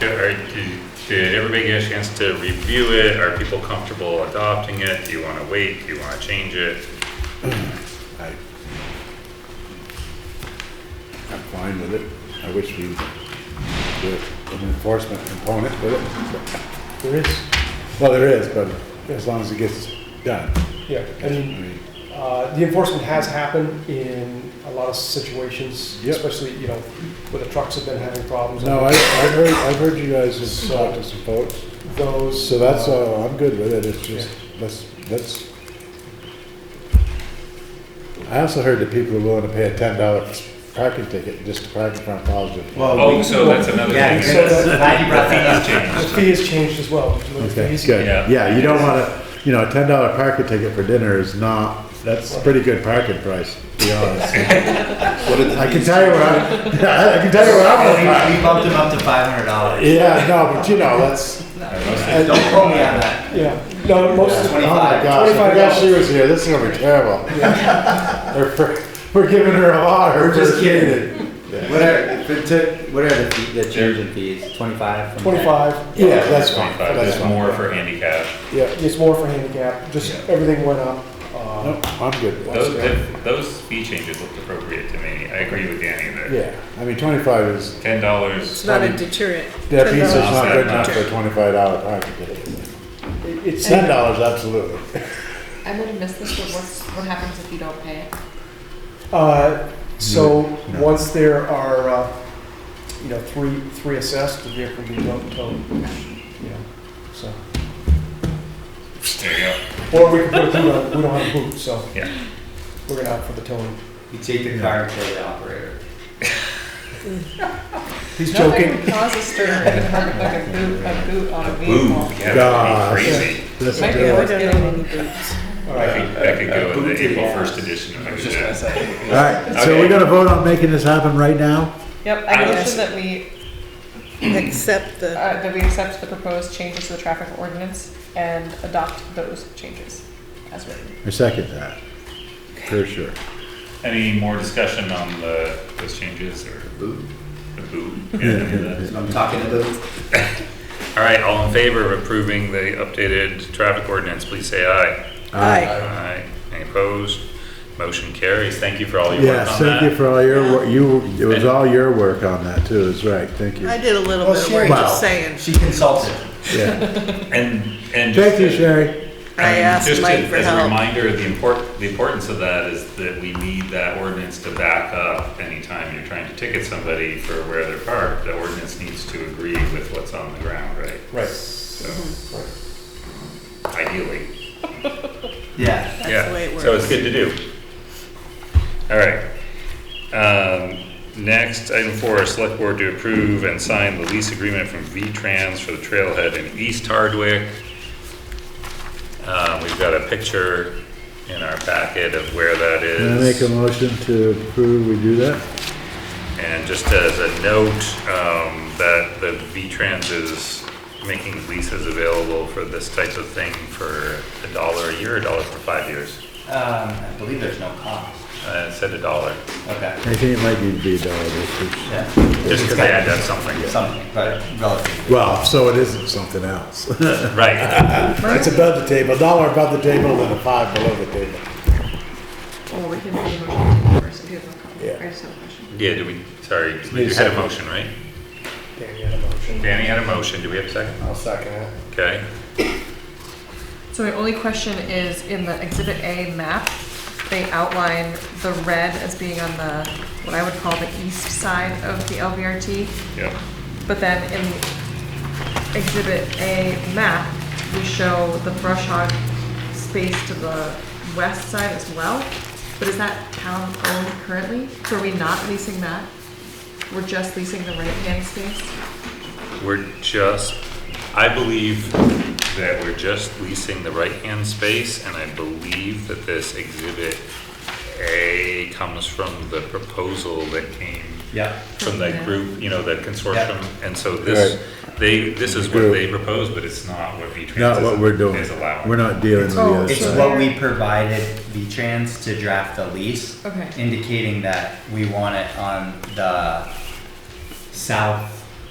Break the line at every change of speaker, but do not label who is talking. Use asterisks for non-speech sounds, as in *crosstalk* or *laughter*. Yeah, all right, did- Did everybody get a chance to review it? Are people comfortable adopting it? Do you want to wait? Do you want to change it?
I, I'm fine with it. I wish we did an enforcement component with it.
There is,
Well, there is, but as long as it gets done.
yeah, I
I
mean,
mean,
uh, the enforcement has happened in a lot of situations,
Yep.
especially, you know, where the trucks have been having problems.
No, I, I've heard, I've heard you guys have talked to some folks,
Those.
so that's
uh,
all, I'm good with it, it's just, let's, let's. I also heard that people are willing to pay a ten dollar parking ticket just to park in front of Positive.
Oh, so that's another
Yeah,
thing.
I'm
so that-
glad you brought that up.
The fee has changed as well. Did you look at the
Okay,
fees?
good.
Yeah.
Yeah, you don't wanna, you know, a ten dollar parking ticket for dinner is not, that's a pretty good parking price, to be honest. I can tell you where I'm, *laughs* I can tell you where I'm gonna park.
We we Oh, bumped him up to five hundred dollars.
Yeah, no, but you know, that's,
Don't quote me on that.
Yeah, no, most of
oh
the,
Twenty-
my gosh, I forgot she was here, this is gonna be terrible. We're- We're, we're giving her a lot.
We're just kidding.
kidding.
What are, the tip- what are the fee, the change in fees? Twenty-five?
twenty-five,
Yeah, that's fine,
Twenty-five,
that's
there's
fine.
more for handicap.
Yeah,
it's more for handicap, just
Yeah.
everything went up. uh,
no, I'm good. with
Those,
that.
that- those fee changes looked appropriate to me. I agree with Danny that
Yeah, I mean, twenty-five is,
ten dollars,
It's not a deterrent.
that pizza's
$10.
not good enough for a twenty-five dollar parking ticket.
it- It's,
Ten dollars, absolutely.
I'm gonna miss this, but what's, what happens if you don't pay it?
uh, so, once there are, uh, you know, three, three assessed, the vehicle will be towed, towed, you know, so.
there you go.
Or we can put a boot on, we don't have a boot, so.
Yeah.
We're gonna opt for the towing.
You take the car and pay the operator.
He's
Nothing
joking.
would cause a stir like a boot, a boot on a
Boom,
vehicle.
yeah, that would
Gosh.
be crazy.
This
Might
is
be
good.
worth
I
getting
don't
any
know any boots.
All
I
right,
think that could go in
Boom
the
to the
April
ass.
first edition. if I could do that.
say.
All right, so we're gonna vote on making this happen right now?
Yep,
I
I
was-
motion that we,
Except the,
uh, that we accept the proposed changes to the traffic ordinance and adopt those changes as written.
I second that, for sure.
Any more discussion on the, those changes or? Boo. The boo, yeah, any of that?
I'm talking to those.
All right, all in favor of approving the updated traffic ordinance, please say aye.
aye.
Aye. Any opposed? Motion carries. Thank you for all your work
Yes,
on
Uh, thank you
that.
for all your, wor- you, it was all your work on that too, that's right, thank you.
I did a little
Well,
bit of
she-
work,
well,
just saying.
She consulted.
*laughs*
Yeah.
And, and. just
Thank you,
to-
Sherry.
I
and
asked
just to-
Mike for
As a
help.
reminder, the import, the importance of that is that we need that ordinance to back up anytime you're trying to ticket somebody for where they're parked. The ordinance needs to agree with what's on the ground, right?
right.
So,
Mm-hmm.
ideally.
Yeah.
That's
Yeah,
the way it
So
works.
it's good to do. All right. Um, Next, item four, select board to approve and sign the lease agreement from V-Trans for the trailhead in East Hardwick. Uh, We've got a picture in our packet of where that
Can I make a
is.
motion to approve we do that?
And just as a note, um, that the V-Trans is making leases available for this type of thing for a dollar a year, a dollar for five years.
Um, I believe there's no cost.
Uh, It said a dollar.
Okay.
I think it might need to be done, this
Yeah.
Just
It's
because
got
they had done something.
Something, but relative.
is- Well, so it isn't something else. *laughs*
Right.
It's above the table, a dollar above the table and a five below the table.
Well, we can do a motion first, if you have a
Yeah.
comment. I just have a question.
Yeah, do we, sorry,
Need
you
a
had a
second.
motion, right?
Danny had a motion.
Danny had a motion. Do we have a second?
I'll second it.
Okay.
So my only question is, in the Exhibit A map, they outline the red as being on the, what I would call the east side of the LVRT.
Yep.
But then in Exhibit A map, we show the brush hog space to the west side as well. But is that town owned currently? So are we not leasing that? We're just leasing the right-hand space?
We're just, I believe that we're just leasing the right-hand space, and I believe that this exhibit A comes from the proposal that came
Yeah.
from that
Yeah.
group, you know, that consortium. And so this,
Right.
they, this is what
Group.
they proposed, but it's not what
Not
V-Trans
what we're doing,
is allowing.
we're not dealing with the
Oh,
other
It's
side.
what we provided V-Trans to draft the lease.
Okay.
Indicating that we want it on the south